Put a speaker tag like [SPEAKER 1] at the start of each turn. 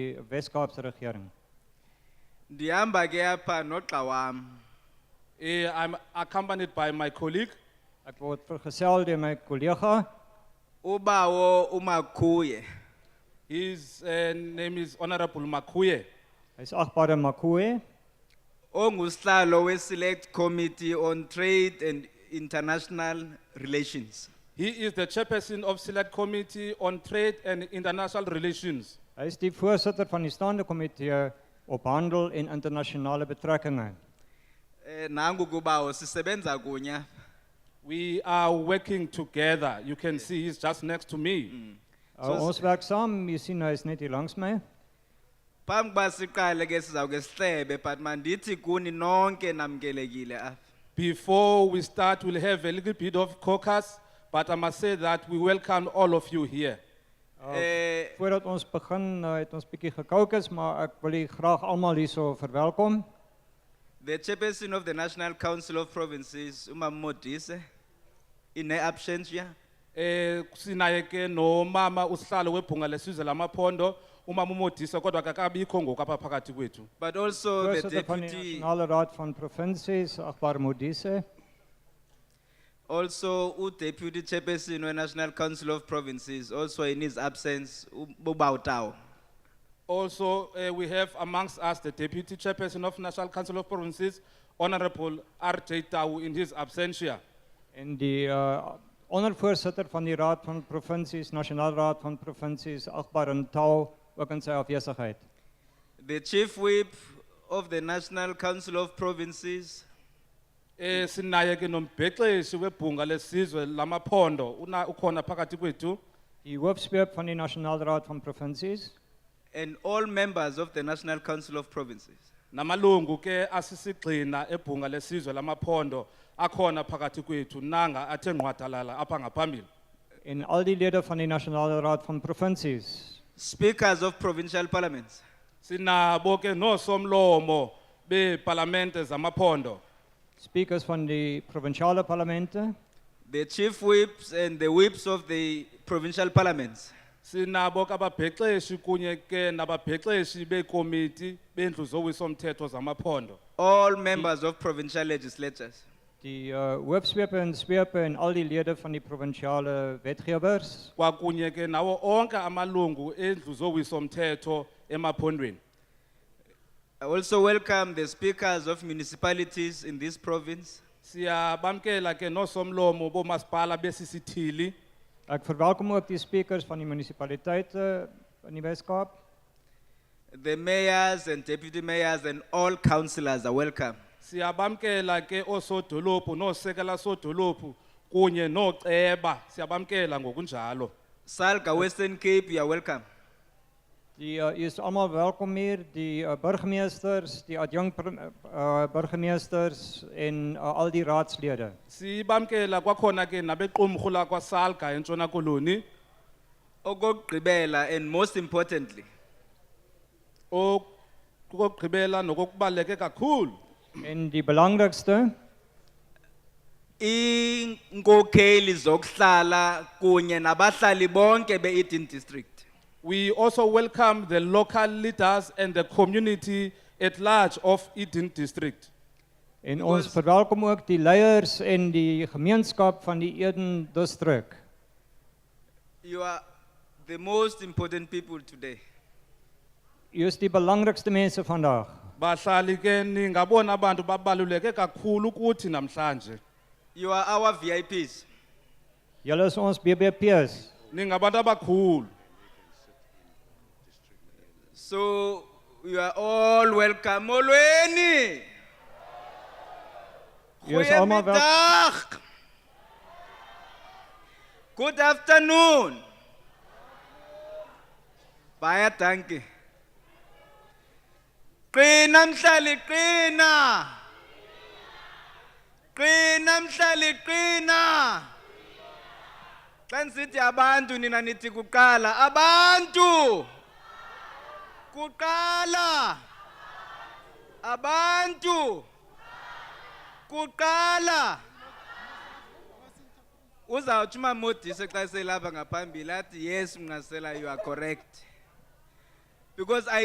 [SPEAKER 1] die Wes-Kaapse regering.
[SPEAKER 2] Ndihamba ke apha noxa wam.
[SPEAKER 3] Eh, I'm accompanied by my colleague,
[SPEAKER 1] Ek word vergesel deur my kollega,
[SPEAKER 2] Ubawo umakhuye.
[SPEAKER 3] his uh, name is Honorable Makuye.
[SPEAKER 1] hy's agbare Makoe,
[SPEAKER 2] Ongusihlalo we Select Committee on Trade and International Relations.
[SPEAKER 3] He is the chairperson of Select Committee on Trade and International Relations.
[SPEAKER 1] hy is die voorsitter van die staande komitee op handel en internasionale betrekkinge.
[SPEAKER 2] Eh nangu kubawo sisebenza kunya.
[SPEAKER 3] We are working together. You can see he's just next to me.
[SPEAKER 1] Uh,
[SPEAKER 2] So-
[SPEAKER 1] ons werk saam, jy sien hy is net hier langs my.
[SPEAKER 2] Phambi kuba siqale ke sizawuke sihlebe but mandithi kuni nonke namkelekile apha.
[SPEAKER 3] Before we start, we'll have a little bit of caucus, but I must say that we welcome all of you here.
[SPEAKER 2] Eh
[SPEAKER 1] Voordat ons begin, uh, het ons bietjie gekookus, maar ek wil u graag almal hierso verwelkom.
[SPEAKER 2] the chairperson of the National Council of Provinces uMamodise in her absentia.
[SPEAKER 3] Eh, sinaye ke no mama usihlalo webhunga lesizwe lamaphondo umama umodisa kodwa kakabikho ngoku apha phakathi kwethu
[SPEAKER 2] But also the
[SPEAKER 1] Voorsitter van die
[SPEAKER 2] deputy
[SPEAKER 1] Nasionale Raad van Provinsies, agbare Modise,
[SPEAKER 2] Also, uDeputy Chairperson weNational Council of Provinces, also in his absence, uBautau.
[SPEAKER 3] Also, uh, we have amongst us the Deputy Chairperson of National Council of Provinces, Honorable R.J. Tau in his absentia.
[SPEAKER 1] en die uh, ondervoorsitter van die Raad van Provinsies, Nasionale Raad van Provinsies, agbare Ntau, ook in sy afwesigheid.
[SPEAKER 2] The Chief Whip of the National Council of Provinces,
[SPEAKER 3] Eh, sinaye ke nombhexeshi webhunga lesizwe lamaphondo, una, ukhona phakathi kwethu.
[SPEAKER 1] Die hoofspeep van die Nasionale Raad van Provinsies
[SPEAKER 2] and all members of the National Council of Provinces.
[SPEAKER 3] Namalungu ke asisigxina ebhunga lesizwe lamaphondo, akhona phakathi kwethu, nanga athe ngqwadalala apha ngaphambili.
[SPEAKER 1] en al die lede van die Nasionale Raad van Provinsies.
[SPEAKER 2] Speakers of provincial parliaments,
[SPEAKER 3] Sinabo ke nosomlomo bepalamente zamaphondo.
[SPEAKER 1] Speakers van die provinsiale parlemente,
[SPEAKER 2] the chief whips and the whips of the provincial parliaments,
[SPEAKER 3] sinabo kababhexeshi kunye ke nababhexeshi bekomiti bendlu zowisomthetho zamaphondo
[SPEAKER 2] all members of provincial legislatures,
[SPEAKER 1] die uh, hoofspepe en swepe en al die lede van die provinsiale wetgewers
[SPEAKER 3] kwakunye ke nawo onke amalungu endlu zowisomthetho emaphondweni
[SPEAKER 2] I also welcome the speakers of municipalities in this province,
[SPEAKER 3] siyabamkela ke nosomlomo bomasipala besisithili
[SPEAKER 1] Ek verwelkom ook die speakers van die munisipaliteite in die Weskaap.
[SPEAKER 2] The mayors and deputy mayors and all councillors are welcome.
[SPEAKER 3] siyabamkela ke osodolophu noosekela sodolophu kunye nooceba siyabamkela ngokunjalo
[SPEAKER 2] Salga Western Cape, you are welcome.
[SPEAKER 1] Die uh, is almal welkom hier, die uh, burgemeesters, die adjunk uh, burgemeesters en uh, al die raadslede.
[SPEAKER 3] sibamkela kwakhona ke nabequmrhu lakwasalga entshona koloni
[SPEAKER 2] Okokugqibela and most importantly,
[SPEAKER 3] okokugqibela nokokubaluleke kakhulu
[SPEAKER 1] En die belangrikste
[SPEAKER 2] iinkokheli zokuhlala kunye nabahlali bonke be-Eden District.
[SPEAKER 3] we also welcome the local leaders and the community at large of eden district
[SPEAKER 1] en ons verwelkom ook die leiers en die gemeenskap van die Eden distrik.
[SPEAKER 2] You are the most important people today.
[SPEAKER 1] U is die belangrikste mense vandag.
[SPEAKER 3] bahlali ke ningabona abantu babaluleke kakhulu kuthi namhlanje
[SPEAKER 2] You are our VIPs.
[SPEAKER 1] Julle is ons BBP's.
[SPEAKER 3] ningabantu abakhulu
[SPEAKER 2] So you are all welcome. Molweni!
[SPEAKER 1] Jy is almal wel-
[SPEAKER 2] Goeiemiddag! Good afternoon. Baie dankie. Qina mhlali qina. Qina mhlali qina. Xa nisithi abantu nina nithi kuqala abantu. Kuqala. Abantu. kuqala uzawutsho umamodise xa selapha ngaphambili athi yes mnqasela you are correct Because I